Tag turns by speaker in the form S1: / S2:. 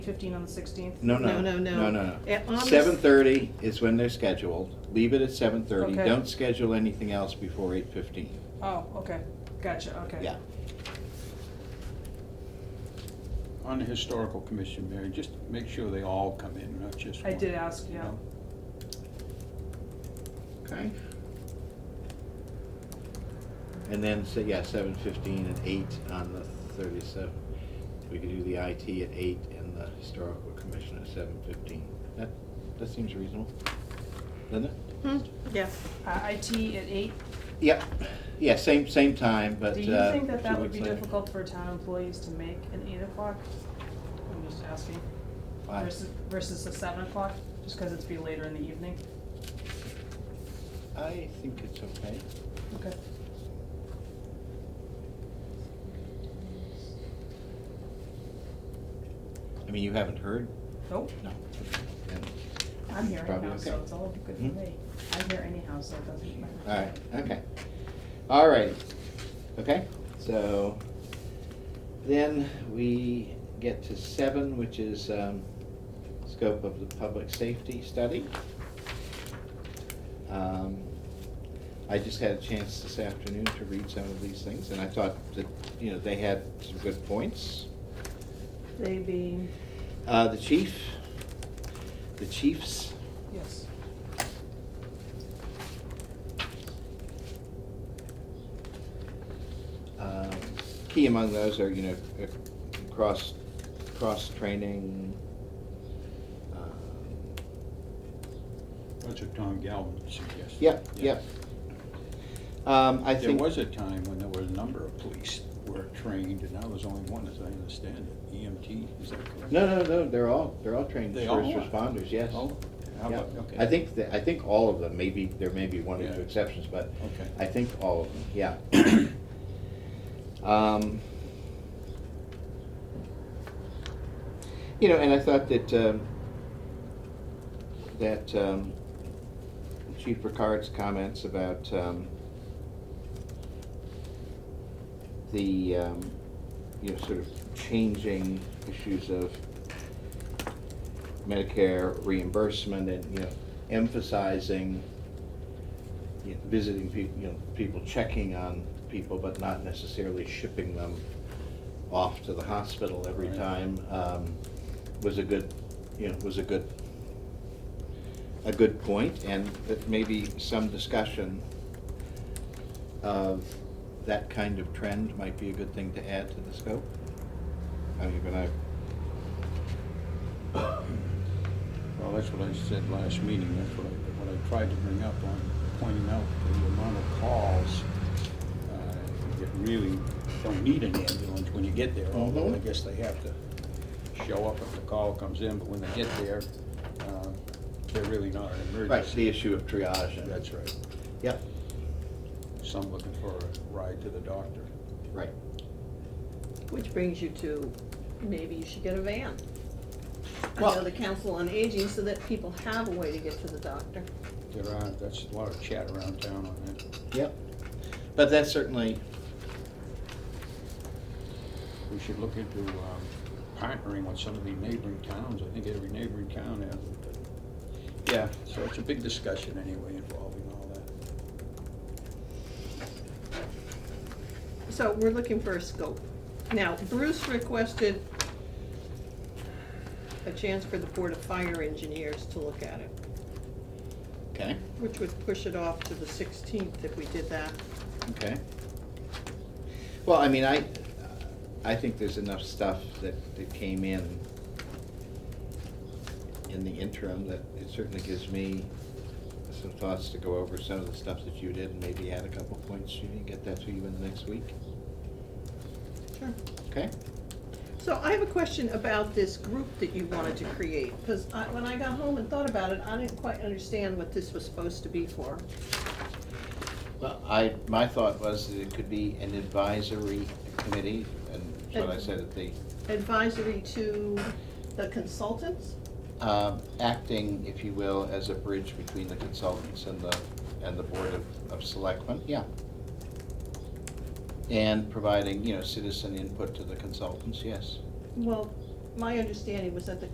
S1: Fifteen on the sixteenth?
S2: No, no.
S3: No, no, no.
S2: No,
S3: At- on
S2: no.
S3: the-
S2: Seven thirty is when they're scheduled. Leave it at seven thirty.
S1: Okay.
S2: Don't schedule anything else before eight fifteen.
S1: Oh, okay, gotcha, okay.
S2: Yeah.
S4: On the historical commission, Mary, just make sure they all come in, not just
S1: I
S4: one.
S1: did ask,
S4: you
S1: yeah.
S4: know?
S2: Okay. And then, so, yeah, seven fifteen and eight on the thirty-seven. We could do the IT at eight and the historical commission at seven fifteen. That, that seems reasonable, doesn't it?
S3: Hmm, yeah.
S1: Uh, IT at eight,
S2: Yep, yeah, same, same time, but, uh.
S1: do you think that
S2: two
S1: that would
S2: weeks
S1: be
S2: later.
S1: difficult for town employees to make an eight o'clock? I'm just asking.
S2: Why?
S1: Versus, versus a seven o'clock, just because it's be later in the evening?
S2: I think it's okay.
S1: Okay.
S2: I mean, you haven't heard?
S1: Nope,
S2: No. Then-
S1: I'm here
S2: Probably
S1: anyhow, so
S2: okay.
S1: it's all good for
S2: Hmm?
S1: me. I'm here anyhow, so it doesn't matter.
S2: All right, okay. All right, okay, so then we get to seven, which is um, scope of the public safety study. Um, I just had a chance this afternoon to read some of these things, and I thought that, you know, they had some good points.
S1: They being,
S2: Uh, The chief, the chiefs,
S1: yes.
S2: Um, Key among those are, you know, uh, cross, cross-training. um,
S4: That's what Tom Galvin suggested.
S2: Yep,
S4: Yeah.
S2: yep. Um, I
S4: There
S2: think,
S4: was a time when there were a number of police were trained, and I was only one, as I understand it, EMT, is that correct?
S2: no, no, no, they're all, they're all trained
S4: They
S2: first
S4: all are?
S2: responders, yes.
S4: Oh, how
S2: Yeah.
S4: about, okay.
S2: I think, that- I think all of them, maybe, there may be one or
S4: Yeah.
S2: two exceptions, but
S4: Okay.
S2: I think all of them, yeah. Um, You know, and I thought that, um, that um, Chief Ricard's comments about um, the, um, you know, sort of changing issues of Medicare reimbursement and, you know, emphasizing you know, visiting people, you know, people checking on people, but not necessarily shipping them off to the hospital every
S4: Right.
S2: time, um, was a good, you know, was a good, a good point, and that maybe some discussion of that kind of trend might be a good thing to add to the scope. I mean, when I,
S4: Well, that's what I said last meeting, that's what I, what I tried to bring up on pointing out the amount of calls uh, that really don't need an ambulance when you get there, although I
S2: Mhm.
S4: guess they have to show up if the call comes in, but when they get there, uh, they're really not an
S2: right,
S4: emergency.
S2: the issue of triage and.
S4: That's right.
S2: Yep,
S4: Some looking for a ride to the doctor.
S2: right.
S3: Which brings you to, maybe you should get a van. I
S2: Well-
S3: know the council on aging, so that people have a way to get to the doctor.
S4: There are, that's a lot of chat around town on that.
S2: Yep. But that's certainly,
S4: We should look into um, partnering with some of the neighboring towns. I think every neighboring town has it. but- Yeah, so it's a big discussion anyway involving all that.
S3: So we're looking for a scope. Now, Bruce requested a chance for the Board of Fire Engineers to look at it,
S2: okay,
S3: which would push it off to the sixteenth if we did that.
S2: okay. Well, I mean, I, I think there's enough stuff that, that came in in the interim that it certainly gives me some thoughts to go over some of the stuff that you did and maybe add a couple points, Judy, and get that to you in the next week,
S3: Sure.
S2: okay?
S3: So I have a question about this group that you wanted to create, because I, when I got home and thought about it, I didn't quite understand what this was supposed to be for.
S2: Well, I, my thought was that it could be an advisory committee, and that's what I said at the
S3: Advisory to the consultants?
S2: um, acting, if you will, as a bridge between the consultants and the, and the Board of, of Selectmen, yeah. And providing, you know, citizen input to the consultants, yes.
S3: Well, my understanding was that the